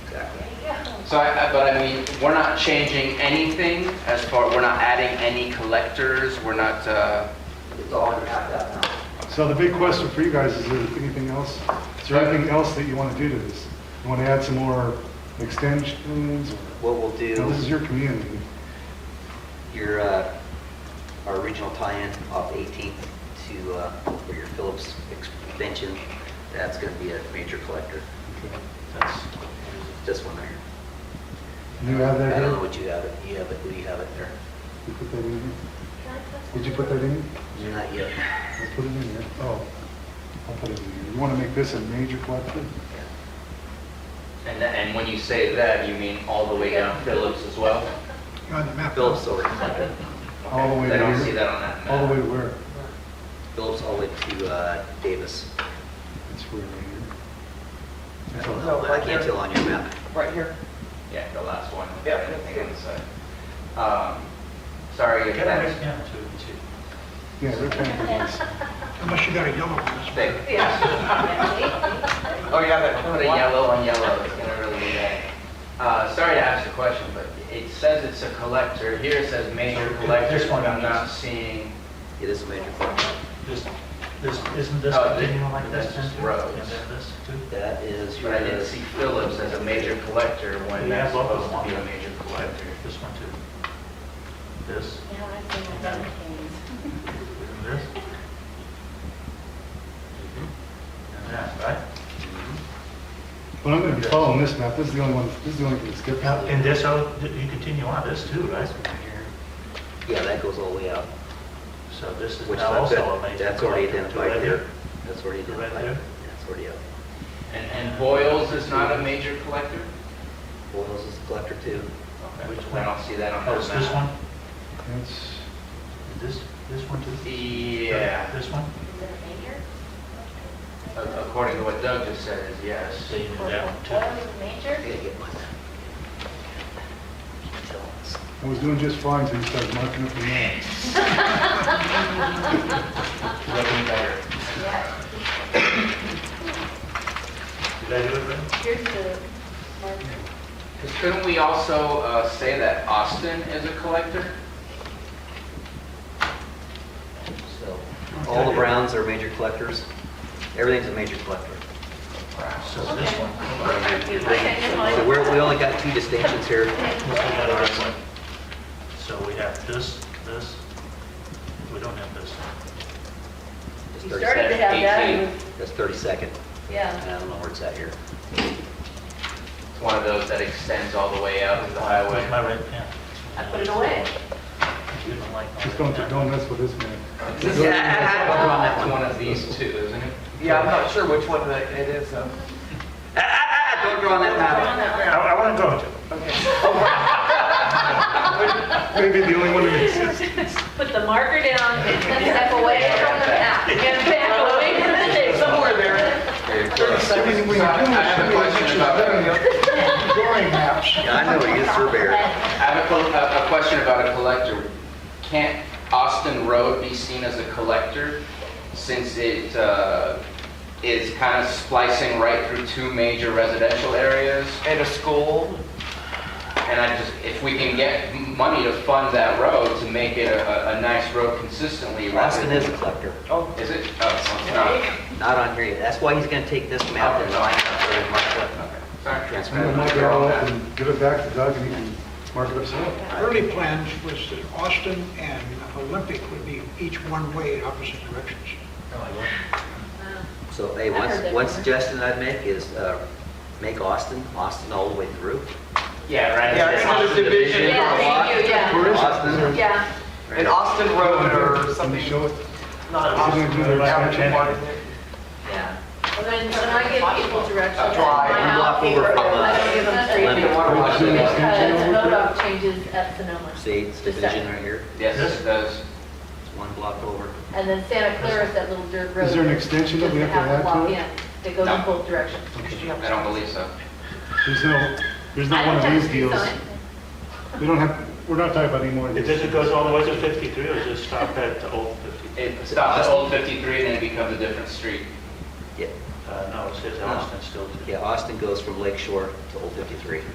So I, I- but I mean, we're not changing anything as far, we're not adding any collectors, we're not, uh, It's all you have that now. So the big question for you guys is, is there anything else, is there anything else that you want to do to this? You want to add some more extensions? or- What we'll Now, This is do, your community. your, uh, our regional tie-in off 18th to, uh, for your Phillips extension, that's going to be a major collector. Okay. That's this one there. You have that I don't know here? what you have, it. you have it, who you have it there. You put that in here? Did you put that in? Not yet. I'll put it in here. Oh, I'll put it in here. You want to make this a major collector? and, tha- and when you say that, you mean all the way down Phillips as well? On the map. Phillips over collector. All the way I don't down. see that on that All the way map. to where? Phillips all the way to uh, Davis. It's where right I here. don't know. I can't tell on your map. Right here. Yeah, the last one. Yeah. I think on the side. Um, Sorry if Get that that's right down to, Yeah, they're kind of nice. Unless you got a yellow one. thick. to. Oh, yeah, that Put a yellow on yellow, it's gonna really be bad. Uh, sorry to ask the question, but it says it's a collector, here it says major collector, This one but I'm does. not seeing, It is a major collector. This, this, isn't this Oh, the- continuing like this then too? roads. And then this too? That is but your. I didn't see Phillips as a major collector when Yeah, that's both of supposed to them. be a major collector. This one too? This, Yeah, I think I've done things. and this? Mm-hmm. And that, right? But I'm going to be following this map. This is the only one, this is the only thing that's good. Now, and this, oh, you continue on this too, right? Yeah, that goes all the way out. So this is Which now that's, also a major that's already collector too, right identified here. here. That's already Right identified. there. That's already out. And, and Boyles is not a major collector? Boyles is a collector too. Okay, Which I one? don't see that on Oh, the it's this map. one? That's, This, this one too? E, Yeah, This one? Is it a major? a- according to what Doug just said, is yes. So you do that one too? Oil is major? I gotta get my map. Tell us. I was doing just fine until you started marking up the map. Looking better. Yeah. Did I do it right? Here's the marker. Because couldn't we also uh, say that Austin is a collector? So, all the Browns are major collectors. Everything's a major collector. So this one? So we're, we only got two distinctions here. Let's look at it this way. So we have this, this, we don't have this. That's You 30 started to have that, and- That's 32nd. yeah. And I don't know where it's at here. It's one of those that extends all the way out to the Where's highway. my red pen? I put it away. You don't like my Just red don't, pen. don't mess with this map. That's one of these two, isn't it? Yeah, I'm not sure which one that it is, though. Ah, ah, ah, don't draw on that map. I, I want to go to. Maybe the only one that exists. Put the marker down and step away from the map. Get back away from the thing. Somewhere there. So I I have a question about, Drawing maps. Yeah, I know, you're a surveyor. I have a col- a, a question about a collector. Can't Austin Road be seen as a collector since it uh, is kind of splicing right through two major residential areas? And a school. And I just, if we can get m- money to fund that road to make it a, a- a nice road consistently. rather Austin than- is a collector. Is it? Oh, it's not. Not on here yet. That's why he's gonna take this map and line up for the markup. Okay. Sorry. I'm going to mark it all up and give it back to Doug and he can mark it up himself. Early plans was that Austin and Olympic would be each one way in opposite directions. So, hey, I one, heard that one before. suggestion I'd make is, uh, make Austin, Austin all the way through. Yeah, right. Yeah, it's another division. Yeah, thank you, yeah. Where is it? Austin. Yeah. An Austin Road or Can you something. show it? Not Is it Austin gonna do Road. the Avenue extension? Martin there. Yeah. Well, then, when I give people directions, Drive, my you block out over here, from, uh, I don't give them straight Olympic. because Is it an extension over there? NODOC changes at Sonoma. See, it's The division second. right here. Yes, it does. It's one block over. And then Santa Clara is that little dirt road. Is there an extension that we Just have to add to walk it? in. That goes in No. both directions. I don't believe so. There's no, there's not one of these deals. We don't have, we're not talking about any more of It these. just it goes all the way to 53 or just stop at the old 53? It stops at Old 53 and then it becomes a different street. Yeah, Uh, no, it says Austin still too. yeah, Austin goes from Lake Shore to Old 53.